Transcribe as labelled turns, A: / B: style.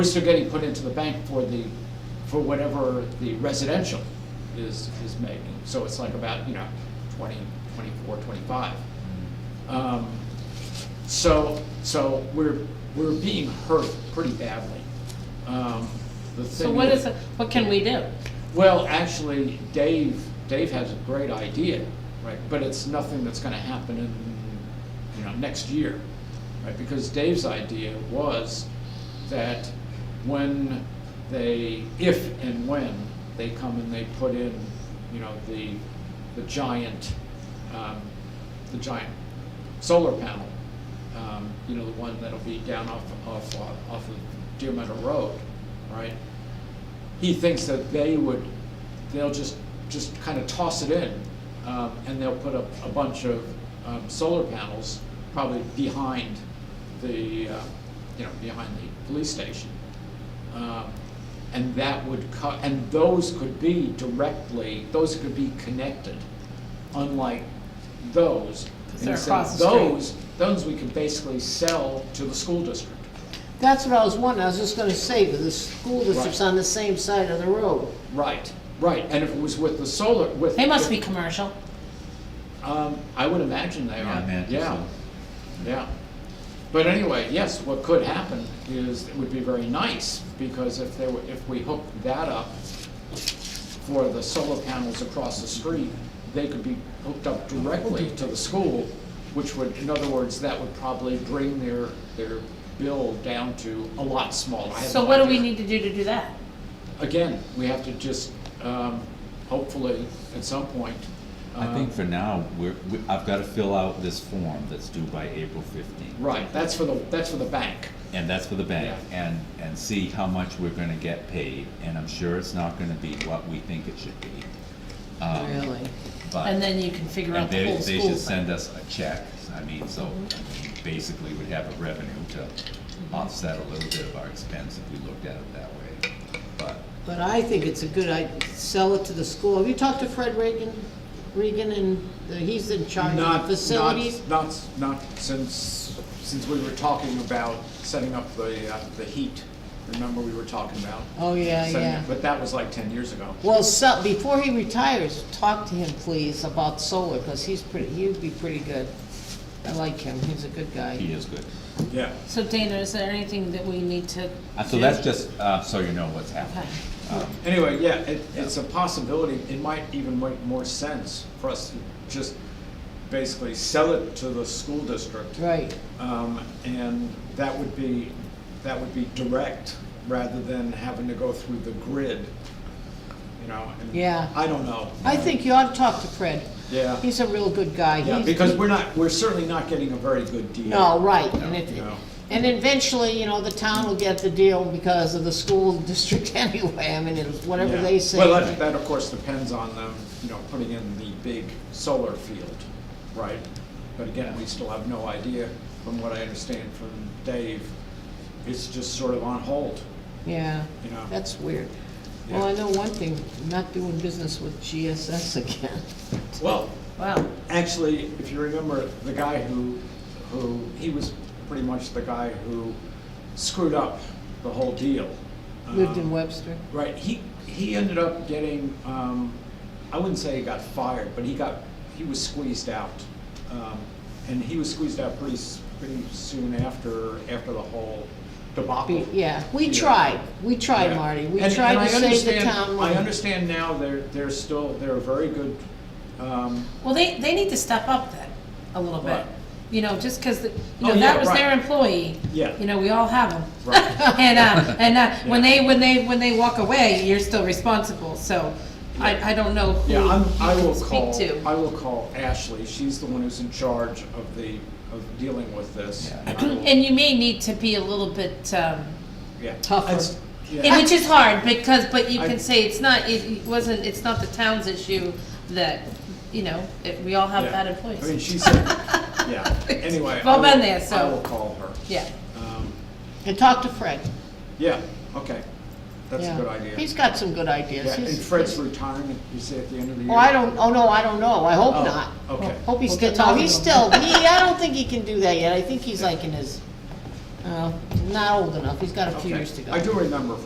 A: Those are getting put into the bank for the, for whatever the residential is, is making. So it's like about, you know, 20, 24, 25. Um, So, so we're, we're being hurt pretty badly. Um, The
B: So
A: thing
B: what
A: is-
B: is, it- what can we do?
A: Well, actually, Dave, Dave has a great idea, right, but it's nothing that's gonna happen in, you know, next year, right? Because Dave's idea was that when they, if and when they come and they put in, you know, the, the giant, um, the giant solar panel, um, you know, the one that'll be down off, off, off of Deer Meadow Road, right? he thinks that they would, they'll just, just kind of toss it in, um, and they'll put up a bunch of, um, solar panels, probably behind the, uh, you know, behind the police station. Um, And that would cut, and those could be directly, those could be connected, unlike those.
B: 'Cause
A: in
B: they're
A: sense,
B: across the street.
A: Those, those we could basically sell to the school district.
C: That's what I was wondering, I was just gonna say, but the school district's on the same side of the road.
A: Right, right, and if it was with the solar, with.
B: They must
A: if-
B: be commercial.
A: Um, I would imagine they are.
D: Yeah, I imagine
A: Yeah,
D: so.
A: yeah. But anyway, yes, what could happen is, it would be very nice, because if they were, if we hooked that up for the solar panels across the street, they could be hooked up directly to the school, which would, in other words, that would probably bring their, their bill down to a lot smaller. I have
B: So
A: no
B: what do we
A: idea.
B: need to do to do that?
A: Again, we have to just, um, hopefully, at some point.
D: I think
A: um,
D: for now, we're, we- I've gotta fill out this form that's due by April fifteenth.
A: Right, that's for the, that's for the bank.
D: And that's for the bank, and, and see how much we're gonna get paid, and I'm sure it's not gonna be what we think it should be.
A: Uh,
D: Um,
C: Really?
D: But-
B: And then you can figure
D: and
B: out the
D: they,
B: whole
D: they
B: school
D: should
B: thing.
D: send us a check, I mean, so, I mean, basically, we'd have a revenue to offset a little bit of our expense if we looked at it that way, but,
C: But I think it's a good, I, sell it to the school. Have you talked to Fred Regan, Regan, and the- he's in charge
A: Not-
C: of facilities?
A: Not, not, not since, since we were talking about setting up the, uh, the heat, remember we were talking about?
C: Oh, yeah,
A: setting
C: yeah.
A: it, But that was like ten years ago.
C: Well, so, before he retires, talk to him, please, about solar, because he's pretty, he'd be pretty good. I like him, he's a good guy.
D: he is good.
A: Yeah.
B: So Dana, is there anything that we need to?
D: Uh, So
B: do?
D: that's just, uh, so you know what's happening. Um,
A: Anyway, yeah, it, it's a possibility, it might even make more sense for us to just basically sell it to the school district.
C: Right,
A: Um, and that would be, that would be direct, rather than having to go through the grid, you know? and
C: Yeah.
A: I don't know.
C: I think you ought to talk to Fred.
A: Yeah.
C: He's a real good guy.
A: Yeah,
C: He's-
A: because we're not, we're certainly not getting a very good deal.
C: No, right, and if,
A: No.
C: and eventually, you know, the town will get the deal because of the school district anyway, I mean, it's whatever
A: Yeah.
C: they say.
A: Well, that, that of course depends on them, you know, putting in the big solar field, right? But again, we still have no idea, from what I understand from Dave, it's just sort of on hold,
C: Yeah,
A: you know?
C: that's weird. Well, I
A: Yeah.
C: know one thing, I'm not doing business with GSS again.
A: Well,
B: Wow,
A: actually, if you remember, the guy who, who, he was pretty much the guy who screwed up the whole deal.
C: Lived in
A: Um,
C: Webster.
A: Right, he, he ended up getting, um, I wouldn't say he got fired, but he got, he was squeezed out. Um, and he was squeezed out pretty, s- pretty soon after, after the whole debacle.
C: Be- Yeah,
A: Oh.
C: we
A: Yeah.
C: tried, we tried,
A: Yeah.
C: Marty, we
A: And- and
C: tried
A: I
C: to save the
A: understand-
C: town
A: I
C: money.
A: understand now they're, they're still, they're a very good, um,
B: well, they, they need to step up then, a little bit.
A: Right.
B: You know, just because, you
A: Oh,
B: know,
A: yeah,
B: that was their
A: right.
B: employee.
A: Yeah.
B: You know, we all have them.
A: right.
B: And, uh, and, uh, when
A: Yeah.
B: they, when they, when they walk away, you're still responsible, so
A: Yeah.
B: I, I don't know who
A: Yeah, I'm, I
B: you
A: will
B: can speak
A: call, I
B: to.
A: will call Ashley, she's the one who's in charge of the, of dealing with this.
D: Yeah.
A: I will-
B: And you may need to be a little bit, um,
A: yeah.
C: Tougher.
A: That's- yeah.
B: Yeah, Which is hard, because, but you
A: I-
B: can say it's not, it wasn't, it's not the town's issue that, you know, it- we all have
A: Yeah.
B: bad
A: I mean,
B: employees.
A: she said, yeah, anyway.
B: We've all
A: I will-
B: been there, so-
A: I will call her.
B: Yeah,
A: Um,
C: And talk to Fred.
A: Yeah, okay, that's a
C: Yeah.
A: good idea.
C: He's got some good
A: Yeah,
C: ideas.
A: and
C: He's-
A: Fred's retirement, you say at the end of the year?
C: Oh, I don't, oh, no, I don't know, I hope
A: Oh,
C: not.
A: Okay.
C: Hope he's
B: We'll
C: still,
B: get
C: no,
B: talking
C: he's
B: to him.
C: still, he, I don't think he can do that yet, I think he's like in his Uh, not old enough, he's got a few
A: Okay.
C: years to go.
A: I do remember